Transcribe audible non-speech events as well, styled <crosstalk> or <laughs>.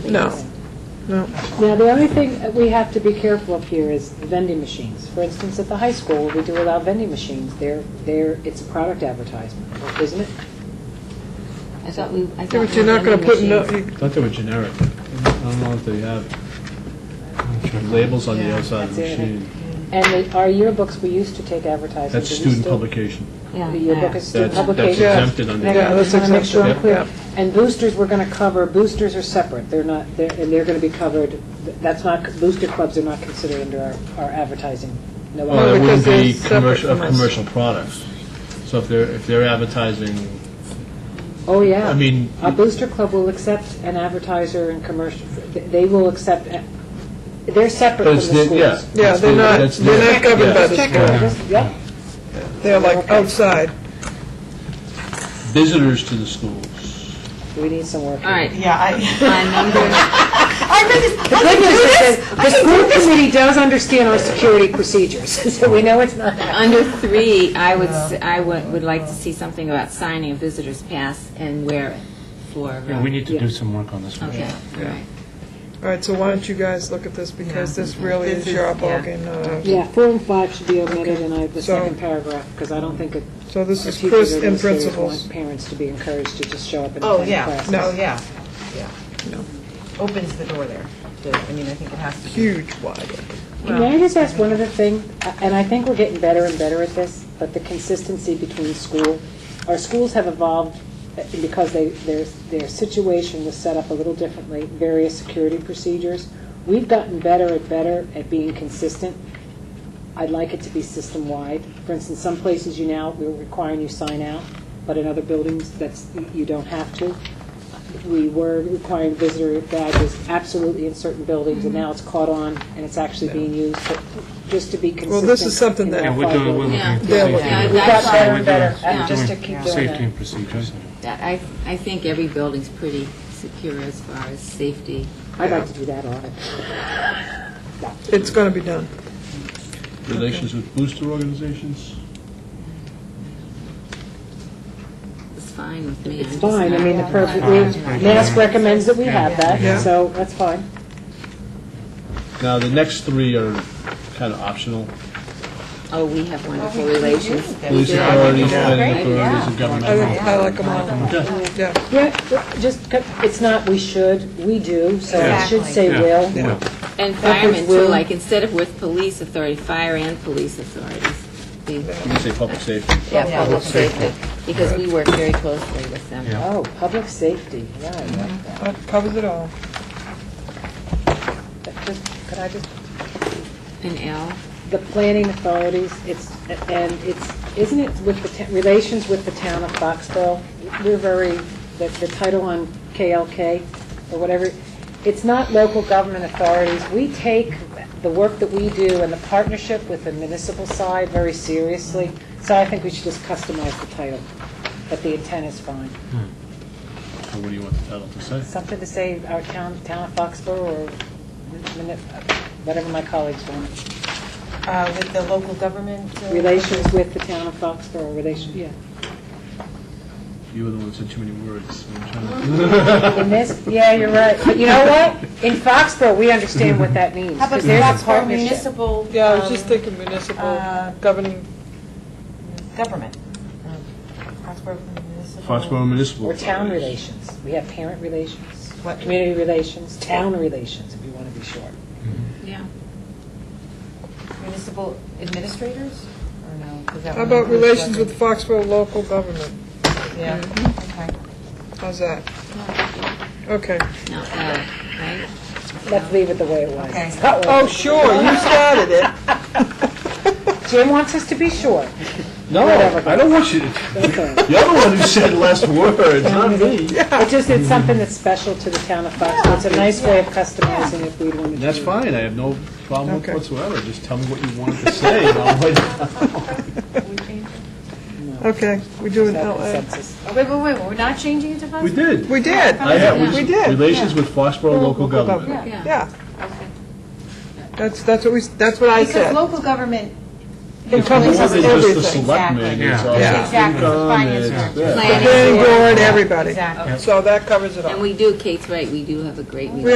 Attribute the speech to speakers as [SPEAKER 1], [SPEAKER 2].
[SPEAKER 1] No, no.
[SPEAKER 2] Now, the only thing that we have to be careful of here is vending machines. For instance, at the high school, we do allow vending machines. They're, they're, it's a product advertisement, isn't it?
[SPEAKER 3] I thought we, I thought.
[SPEAKER 1] But
[SPEAKER 3] we
[SPEAKER 1] you're not
[SPEAKER 3] were
[SPEAKER 1] going to put,
[SPEAKER 3] vending
[SPEAKER 1] no,
[SPEAKER 3] machines.
[SPEAKER 1] you-
[SPEAKER 4] I thought they were generic. I don't know if they have labels on the outside of the
[SPEAKER 2] That's it.
[SPEAKER 4] machine.
[SPEAKER 2] And the- our yearbooks, we used to take advertisements.
[SPEAKER 4] That's
[SPEAKER 2] Are we
[SPEAKER 4] student
[SPEAKER 2] still-
[SPEAKER 4] publication.
[SPEAKER 3] Yeah.
[SPEAKER 2] The yearbook is student
[SPEAKER 4] That's- that's
[SPEAKER 2] publication.
[SPEAKER 4] exempted under
[SPEAKER 2] And I
[SPEAKER 1] Yeah, that's
[SPEAKER 2] just want to make sure I'm
[SPEAKER 1] exempted.
[SPEAKER 2] clear.
[SPEAKER 1] Yep.
[SPEAKER 2] And boosters, we're going to cover, boosters are separate. They're not, they're- and they're going to be covered, that's not, booster clubs are not considered under our our advertising. No,
[SPEAKER 1] Well,
[SPEAKER 4] Well, that
[SPEAKER 1] because
[SPEAKER 4] Uh, wouldn't be
[SPEAKER 1] they're
[SPEAKER 4] commercial,
[SPEAKER 1] separate
[SPEAKER 4] of
[SPEAKER 1] from us.
[SPEAKER 4] commercial products. So if they're, if they're advertising,
[SPEAKER 2] Oh, yeah.
[SPEAKER 4] I mean-
[SPEAKER 2] A booster club will accept an advertiser and commercial, they will accept, they're separate
[SPEAKER 4] but
[SPEAKER 2] from the
[SPEAKER 4] it's, their-
[SPEAKER 2] schools.
[SPEAKER 4] yeah.
[SPEAKER 1] yeah,
[SPEAKER 4] it's
[SPEAKER 1] they're
[SPEAKER 4] their-
[SPEAKER 1] not,
[SPEAKER 4] that's
[SPEAKER 1] they're
[SPEAKER 4] their-
[SPEAKER 1] not governed by
[SPEAKER 4] yeah.
[SPEAKER 1] the school.
[SPEAKER 2] Yep,
[SPEAKER 1] They're like outside.
[SPEAKER 4] Visitors to the schools.
[SPEAKER 2] we need some work.
[SPEAKER 3] All right, <laughs>
[SPEAKER 5] Yeah, I,
[SPEAKER 3] on number,
[SPEAKER 5] I read this,
[SPEAKER 2] The good news is that the school committee does understand our security procedures, <laughs> so we know it's not that.
[SPEAKER 3] under three, I would, s- I would, would like to see something about signing a visitor's pass and wear it for. uh,
[SPEAKER 6] Yeah, we need to do some work on this one.
[SPEAKER 3] Okay, all right.
[SPEAKER 1] All right, so why don't you guys look at this, because this really
[SPEAKER 5] This
[SPEAKER 1] is your
[SPEAKER 5] is- yeah.
[SPEAKER 1] ballgame, uh, not ours.
[SPEAKER 2] Yeah, four and five should be omitted in I- the
[SPEAKER 1] So-
[SPEAKER 2] second paragraph, because I don't think it-
[SPEAKER 1] So this
[SPEAKER 2] our
[SPEAKER 1] is
[SPEAKER 2] teachers
[SPEAKER 1] Chris
[SPEAKER 2] or
[SPEAKER 1] in
[SPEAKER 2] administrators want
[SPEAKER 1] principles.
[SPEAKER 2] parents to be encouraged to just show up and
[SPEAKER 5] oh,
[SPEAKER 2] attend
[SPEAKER 5] yeah,
[SPEAKER 2] classes.
[SPEAKER 5] no, yeah, yeah. Opens the door there. The- I mean, I think it has to be.
[SPEAKER 1] Huge wide.
[SPEAKER 2] Can I just ask one other thing? Uh, And I think we're getting better and better at this, but the consistency between school, our schools have evolved uh, because they, their, their situation was set up a little differently, various security procedures. We've gotten better and better at being consistent. I'd like it to be system-wide. For instance, some places you now, we're requiring you sign out, but in other buildings, that's, you don't have to. We were requiring visitor badges absolutely in certain buildings, and now it's caught on, and it's actually being used, but just to be consistent.
[SPEAKER 1] Well, this is something
[SPEAKER 2] in
[SPEAKER 1] that-
[SPEAKER 2] our
[SPEAKER 6] Yeah, we're doing, we're looking
[SPEAKER 3] Yeah.
[SPEAKER 6] at the
[SPEAKER 1] Yeah,
[SPEAKER 6] safety.
[SPEAKER 1] yeah,
[SPEAKER 3] we've got
[SPEAKER 6] So
[SPEAKER 3] better and
[SPEAKER 6] we're doing-
[SPEAKER 2] better,
[SPEAKER 6] we're
[SPEAKER 2] and just to
[SPEAKER 6] doing
[SPEAKER 2] keep doing
[SPEAKER 6] Safety
[SPEAKER 2] it.
[SPEAKER 6] and procedures.
[SPEAKER 3] That- I, I think every building's pretty secure as far as safety.
[SPEAKER 2] I'd like to do that audit.
[SPEAKER 1] It's going to be done.
[SPEAKER 4] Relations with booster organizations?
[SPEAKER 3] It's fine with me.
[SPEAKER 2] It's
[SPEAKER 3] I'm just
[SPEAKER 2] fine, I
[SPEAKER 3] not-
[SPEAKER 2] mean, the perfect,
[SPEAKER 6] Yeah.
[SPEAKER 2] NASC recommends that we have
[SPEAKER 1] Yeah.
[SPEAKER 2] that, so that's fine.
[SPEAKER 4] Now, the next three are kind of optional.
[SPEAKER 3] Oh, we have wonderful
[SPEAKER 5] we do.
[SPEAKER 3] relations.
[SPEAKER 4] Police
[SPEAKER 3] We do.
[SPEAKER 4] authorities, planning
[SPEAKER 5] Great, yeah.
[SPEAKER 4] authorities, and
[SPEAKER 1] I
[SPEAKER 4] governmental.
[SPEAKER 1] like, I like them all. Yeah,
[SPEAKER 2] Yeah, just, co- it's not we should, we do, so it should
[SPEAKER 5] Exactly.
[SPEAKER 2] say
[SPEAKER 6] Yeah.
[SPEAKER 2] will.
[SPEAKER 1] yeah.
[SPEAKER 3] And firemen too,
[SPEAKER 2] will.
[SPEAKER 3] like instead of with police authority, fire and police authorities. We-
[SPEAKER 4] You can say public safety.
[SPEAKER 3] Yeah, public
[SPEAKER 5] public
[SPEAKER 3] safety, because we work very closely with them.
[SPEAKER 6] Yeah.
[SPEAKER 2] Oh, public safety, yeah, I like that.
[SPEAKER 1] That covers it all.
[SPEAKER 2] But just- Could I just,
[SPEAKER 3] And Al,
[SPEAKER 2] the planning authorities, it's, and it's, isn't it with the, ta- relations with the town of Foxborough? We're very, the, the title on KLK, or whatever, it's not local government authorities. We take the work that we do and the partnership with the municipal side very seriously, so I think we should just customize the title, but the intent is fine.
[SPEAKER 4] So What do you want the title to say?
[SPEAKER 2] Something to say, our town, town of Foxborough, or min- whatever my colleagues want.
[SPEAKER 5] Uh, with the local government. uh,
[SPEAKER 2] Relations with the town of Foxborough, relations, yeah.
[SPEAKER 4] You were the one that said too many words. I'm trying to-
[SPEAKER 2] In this, yeah, you're right. But you know what? In Foxborough, we understand what that means.
[SPEAKER 5] How about
[SPEAKER 2] 'cause there's a
[SPEAKER 5] Foxborough
[SPEAKER 2] partnership.
[SPEAKER 5] municipal?
[SPEAKER 1] Yeah, I was just
[SPEAKER 5] um,
[SPEAKER 1] thinking municipal
[SPEAKER 5] uh,
[SPEAKER 1] governing,
[SPEAKER 5] Government. Foxborough municipal.
[SPEAKER 4] Foxborough Municipal.
[SPEAKER 2] Or town
[SPEAKER 4] Authorities.
[SPEAKER 2] relations. We have parent relations,
[SPEAKER 5] What?
[SPEAKER 2] community relations, town relations, if you want to be short.
[SPEAKER 3] yeah,
[SPEAKER 5] Municipal administrators, or no? 'Cause that
[SPEAKER 1] how
[SPEAKER 5] would
[SPEAKER 1] about
[SPEAKER 5] include
[SPEAKER 1] relations with
[SPEAKER 5] government.
[SPEAKER 1] Foxborough local government?
[SPEAKER 5] Yeah, okay.
[SPEAKER 1] How's that? Okay.
[SPEAKER 3] not Al, right?
[SPEAKER 2] Let's leave it the way it was.
[SPEAKER 5] Okay.
[SPEAKER 2] That
[SPEAKER 1] Oh,
[SPEAKER 2] was-
[SPEAKER 1] sure, you started it.
[SPEAKER 2] Jim wants us to be
[SPEAKER 5] <laughs>
[SPEAKER 2] short.
[SPEAKER 4] No,
[SPEAKER 2] Whatever.
[SPEAKER 4] I don't want you, to-
[SPEAKER 2] Okay.
[SPEAKER 4] you're the one who said last word, not me.
[SPEAKER 2] It just, it's something that's special to the town of Foxborough. It's a nice way of customizing if we wanted to.
[SPEAKER 4] That's fine, I have no problem with
[SPEAKER 1] Okay.
[SPEAKER 4] whatsoever, just tell me what you wanted to say, and I'll write it down.
[SPEAKER 1] Okay, we do an
[SPEAKER 2] No
[SPEAKER 1] LA.
[SPEAKER 2] consensus.
[SPEAKER 5] Oh, Wait, wait, wait, we're not changing it to Foxborough?
[SPEAKER 4] We did.
[SPEAKER 1] We did.
[SPEAKER 4] I have- Oh, we-
[SPEAKER 1] We did.
[SPEAKER 4] Relations with Foxborough local government.
[SPEAKER 3] Yeah.
[SPEAKER 1] Yeah. That's, that's what we, that's what I
[SPEAKER 5] Because
[SPEAKER 1] said.
[SPEAKER 5] local government.
[SPEAKER 1] It
[SPEAKER 4] More
[SPEAKER 1] covers
[SPEAKER 4] than just the
[SPEAKER 1] everything.
[SPEAKER 4] selectmen, it's
[SPEAKER 6] Yeah.
[SPEAKER 4] also
[SPEAKER 1] Yeah.
[SPEAKER 5] Exactly,
[SPEAKER 4] FinCom,
[SPEAKER 5] finance,
[SPEAKER 4] it's-
[SPEAKER 3] Planning
[SPEAKER 4] yeah.
[SPEAKER 1] Planning
[SPEAKER 3] board.
[SPEAKER 1] board, everybody.
[SPEAKER 5] Exactly.
[SPEAKER 1] So that covers it all.
[SPEAKER 3] And we do, Kate's right, we do have a great meeting.